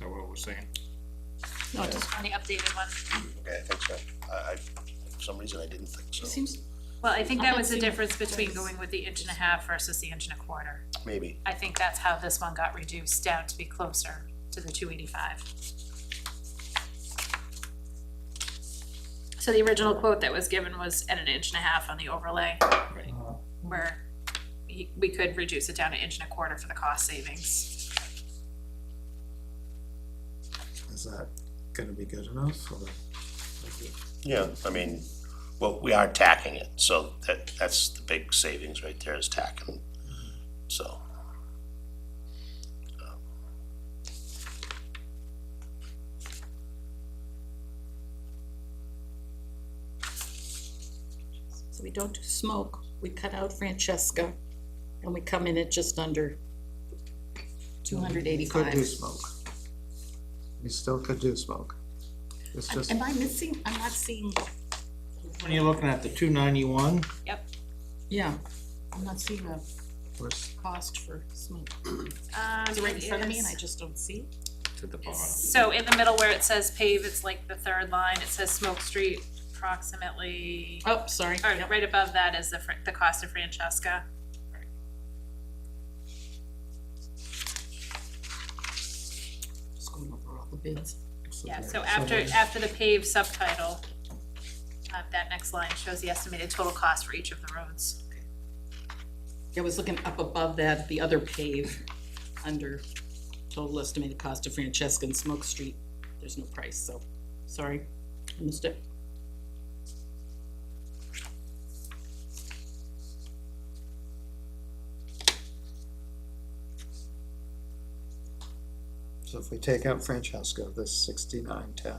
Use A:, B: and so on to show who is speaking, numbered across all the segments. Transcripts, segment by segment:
A: that what we're saying?
B: No, just on the updated one.
C: Okay, I think so. I, I, for some reason, I didn't think
D: It
C: so.
D: seems,
B: Well, I think that was the
D: Updated.
B: difference between going with the inch and a half versus the inch and a quarter.
C: Maybe.
B: I think that's how this one got reduced down to be closer to the two eighty-five. So the original quote that was given was at an inch and a half on the overlay. Where he- we could reduce it down an inch and a quarter for the cost savings.
E: Is that gonna be good enough or?
C: Yeah, I mean, well, we are tacking it, so that, that's the big savings right there is tacking, so.
D: so we don't do smoke, we cut out Francesca, and we come in at just under two hundred
E: Could do
D: eighty-five.
E: smoke. You still could do smoke. It's just,
D: Am I missing, I'm not seeing,
F: When you're looking at the two ninety-one,
B: Yep.
D: yeah, I'm not seeing a
E: where's-
D: cost for smoke.
B: Um,
D: It's right in front of me and
B: it
D: I
B: is-
D: just don't see it.
A: To the bottom.
B: So in the middle where it says pave, it's like the third line, it says Smoke Street approximately,
D: Oh, sorry,
B: or
D: yep,
B: right above that is the, fr- the cost of Francesca.
D: just going over all the bids.
B: Yeah, so after, after the pave subtitle, uh, that next line shows the estimated total cost for each of the roads.
D: I was looking up above that, the other pave, under total estimated cost of Francesca and Smoke Street. There's no price, so, sorry, I missed it.
E: so if we take out Francesca, this sixty-nine ten,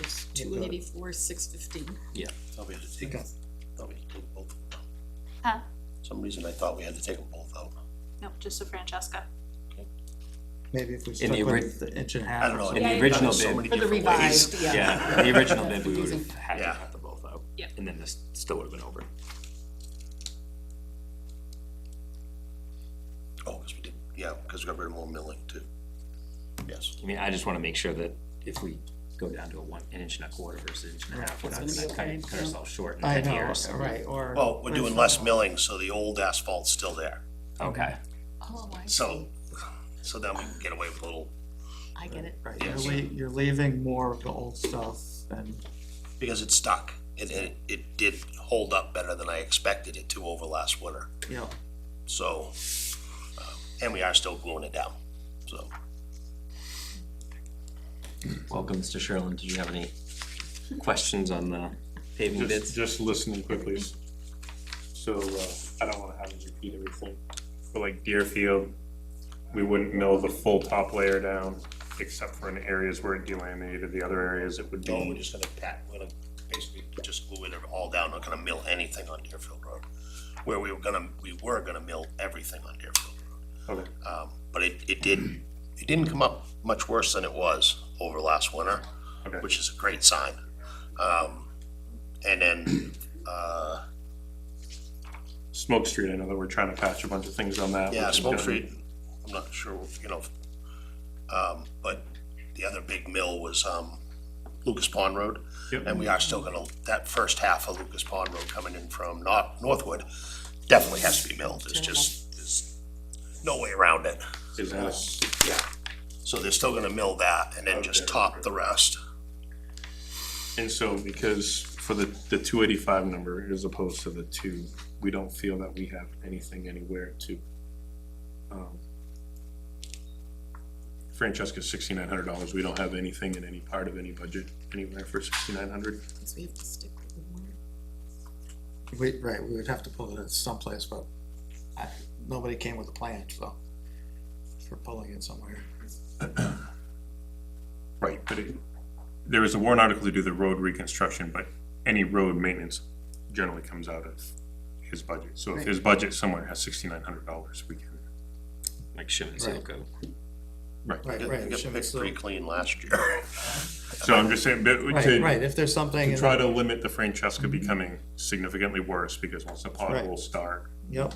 D: It's
E: Yeah,
D: two
E: go ahead.
D: eighty-four, six fifteen.
C: Thought we had to take,
E: Okay.
C: thought we had to take both of them.
B: Huh?
C: Some reason I thought we had to take them both out.
B: Nope, just the Francesca.
E: maybe if we
G: In
E: stuck
G: the
E: with
G: ori-
E: the inch and a
C: I
E: half
C: don't
E: or
C: know.
G: In
E: something.
G: the
B: Yeah,
G: original
C: So
G: bid,
C: many
D: For the
C: different ways.
D: revised, yeah.
G: yeah, the original bid, we would have had to
C: Yeah.
G: cut them both out.
B: Yeah.
G: And then this still would have been over.
C: Oh, because we did, yeah, because we got rid of more milling too. Yes,
G: I mean, I just wanna make sure that if we go down to a one, an inch and a quarter versus an inch and a half, we're not
D: It's gonna
G: gonna
D: be
G: cut,
D: okay,
G: it- cut
D: yeah.
G: ourselves short in
E: I
G: ten
E: know,
G: years.
E: right, or.
C: well, we're doing less milling, so the old asphalt's still there,
G: Okay,
D: Oh, I
C: so, so then we can get away with a little,
D: I get it.
E: Right, you're
C: Yes.
E: lea- you're leaving more of the old stuff and
C: because it's stuck. It, it, it did hold up better than I expected it to over last winter.
E: you know,
C: So, um, and we are still gluing it down, so.
G: welcome, Mr. Sherlin, did you have any questions on the paving bids?
A: Just, just listening quickly. So, uh, I don't wanna have to repeat everything. For like Deerfield, we wouldn't mill the full top layer down, except for in areas where it delaminated, the other areas it would
C: No, we're
A: be.
C: just gonna pat, we're gonna basically just glue it all down, not gonna mill anything on Deerfield Road. Where we were gonna, we were gonna mill everything on Deerfield
A: Okay,
C: Road. Um, but it, it did, it didn't come up much worse than it was over last winter,
A: okay.
C: which is a great sign. Um, and then, uh,
A: Smoke Street, I know that we're trying to patch a bunch of things on that.
C: Yeah,
A: which is
C: Smoke
A: done.
C: Street, I'm not sure, you know, um, but the other big mill was, um, Lucas Pond Road.
A: Yep.
C: And we are still gonna, that first half of Lucas Pond Road coming in from North, Northwood definitely has to be milled, there's just, there's no way around it.
A: Is that a-
C: Yeah. So they're still gonna mill that and then just
A: Okay.
C: top the rest.
A: And so because for the, the two eighty-five number as opposed to the two, we don't feel that we have anything anywhere to. um, Francesca's sixty-nine hundred dollars, we don't have anything in any part of any budget anywhere for sixty-nine hundred.
D: Because we have to stick with the one.
E: we, right, we would have to pull it in someplace, but I, nobody came with a plan, so. For pulling it somewhere.
A: Right. But it, there is a warrant article to do the road reconstruction, but any road maintenance generally comes out of his budget. So if his budget somewhere has sixty-nine hundred dollars, we can.
G: Like Shim and
E: Right.
G: Silco.
E: Right,
C: It
E: right.
C: got
E: Shim
C: picked
E: Tzu.
C: pretty clean last year.
A: So I'm just saying, but to-
E: Right, right, if there's something,
A: to
E: in-
A: try to limit the Francesca becoming significantly worse, because once the
E: Right.
A: potholes start,
E: yep,